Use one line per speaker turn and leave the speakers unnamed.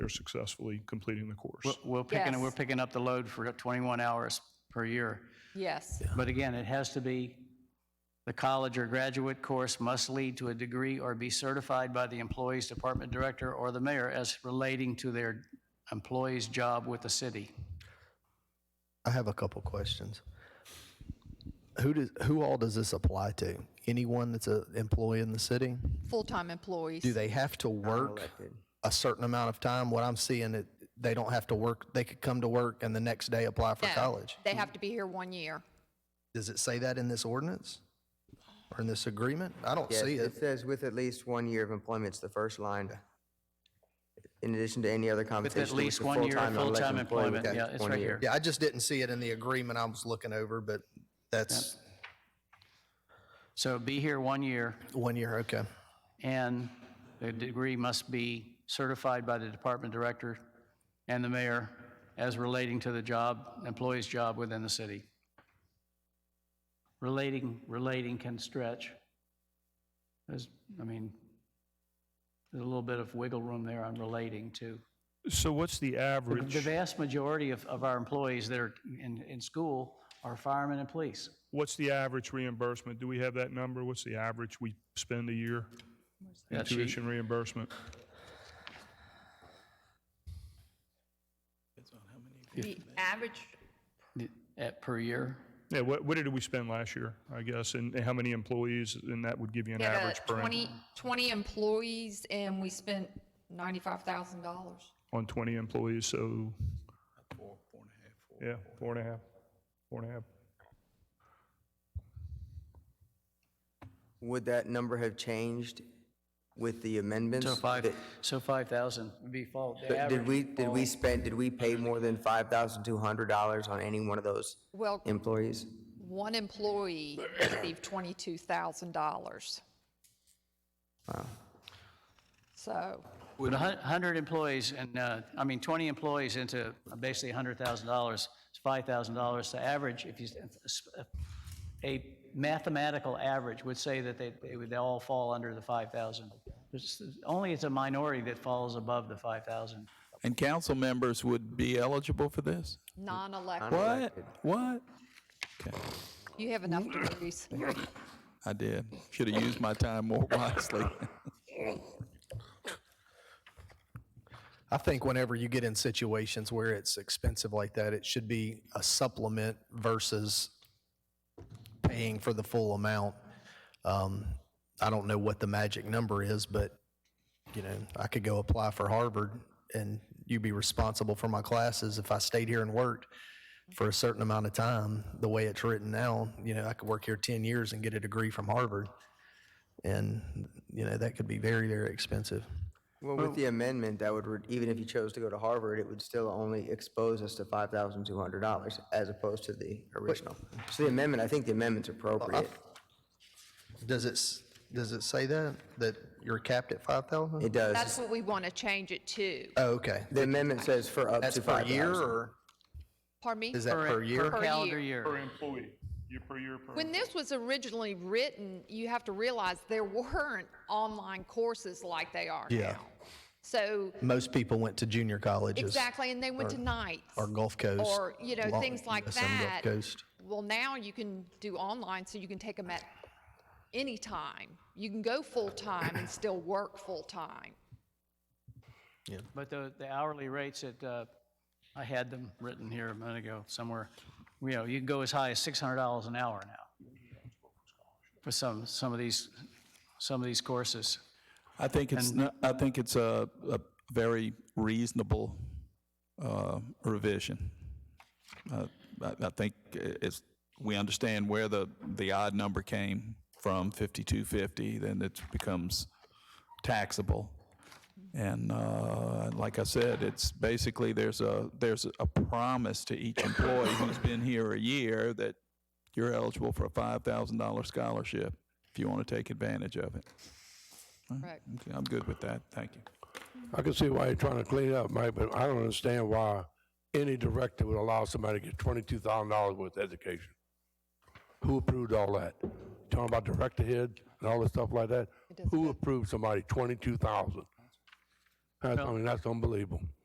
they're successfully completing the course.
We're- We're picking,
Yes.
we're picking up the load for 21 hours per year.
Yes,
But again, it has to be, the college or graduate course must lead to a degree or be certified by the employee's department director or the mayor as relating to their employee's job with the city.
I have a couple questions. Who does who all does this apply to? Anyone that's an employee in the city?
full-time employees.
Do they have to work a certain amount of time? What I'm seeing it they don't have to work. They could come to work and the next day apply for
No,
college.
They have to be here one year.
Does it say that in this ordinance or in this agreement? I don't
Yes,
see
it
it.
says with at least one year of employment, it's the first line. In addition to any other
With
compensation.
at least
the
one year of
full-time or elected
full-time
employee with
employment,
at
yeah,
least
it's
one
right
year.
here.
Yeah, I just didn't see it in the agreement I was looking over, but that's
So be here one year,
one year. Okay.
and the degree must be certified by the department director and the mayor as relating to the job, employee's job within the city. Relating, relating can stretch. There's, I mean, there's a little bit of wiggle room there on relating to.
So what's the
The
average,
vast majority of, of our employees that are in, in school are firemen and police.
what's the average reimbursement? Do we have that number? What's the average we spend a year in
That sheet.
tuition reimbursement?
The average,
At, per year.
Yeah, what, what did we spend last year, I guess, and and how many employees? And that would give you an
yeah,
average per,
twenty, twenty employees and we spent ninety-five thousand dollars.
on 20 employees, so. Four, four and a half. Yeah, four and a half, four and a half.
Would that number have changed with the amendments?
So five,
That-
so 5,000 would be fall. the
but Did
average
we, did
fall.
we spend, did we pay more than five thousand two hundred dollars on any one of those
Well,
employees?
one employee received twenty-two thousand dollars. So,
With a hun- 100 employees and, uh, I mean, 20 employees into basically $100,000, it's $5,000. The average, if you, a mathematical average would say that they, they would all fall under the 5,000. It's- Only it's a minority that falls above the 5,000.
And council members would be eligible for this?
non-elected,
What? What?
you have enough degrees.
I did. Should have used my time more wisely.
I think whenever you get in situations where it's expensive like that, it should be a supplement versus paying for the full amount. Um, I don't know what the magic number is, but, you know, I could go apply for Harvard and you'd be responsible for my classes if I stayed here and worked for a certain amount of time. The way it's written now, you know, I could work here 10 years and get a degree from Harvard. And, you know, that could be very, very expensive.
Well,
Oh.
with the amendment, that would, re- even if you chose to go to Harvard, it would still only expose us to five thousand two hundred dollars as opposed to the original. So the amendment, I think the amendment's appropriate.
Does it, s- does it say that, that you're capped at 5,000?
It does.
That's what we want to change it to.
Oh, okay.
The amendment says for up
That's
to
per
five thousand.
year or
Pardon me?
is that per year?
Per
calendar
year.
Per
year.
employee, year per year per.
When this was originally written, you have to realize there weren't online courses like they are
Yeah.
now. So,
Most people went to junior colleges.
exactly, and they went to nights.
Or Gulf Coast.
Or, you know,
Long-
things like
US and
that.
Gulf Coast.
Well, now you can do online, so you can take them at any time. You can go full-time and still work full-time.
But the, the hourly rates at, uh, I had them written here a minute ago somewhere. You know, you can go as high as six hundred dollars an hour now for some, some of these, some of these courses.
I think it's, not- I think it's a, a very reasonable uh, revision. Uh, I, I think it's, we understand where the, the odd number came from, 5250, then it becomes taxable. And uh, like I said, it's basically, there's a, there's a promise to each employee who's been here a year that you're eligible for a $5,000 scholarship if you want to take advantage of it.
Correct.
Okay, I'm good with that, thank you.
I can see why you're trying to clean it up, Mike, but I don't understand why any director would allow somebody to get twenty-two thousand dollars worth of education. Who approved all that? Talking about director head and all this stuff like that? Who approved somebody twenty-two thousand? That's- I mean, that's unbelievable.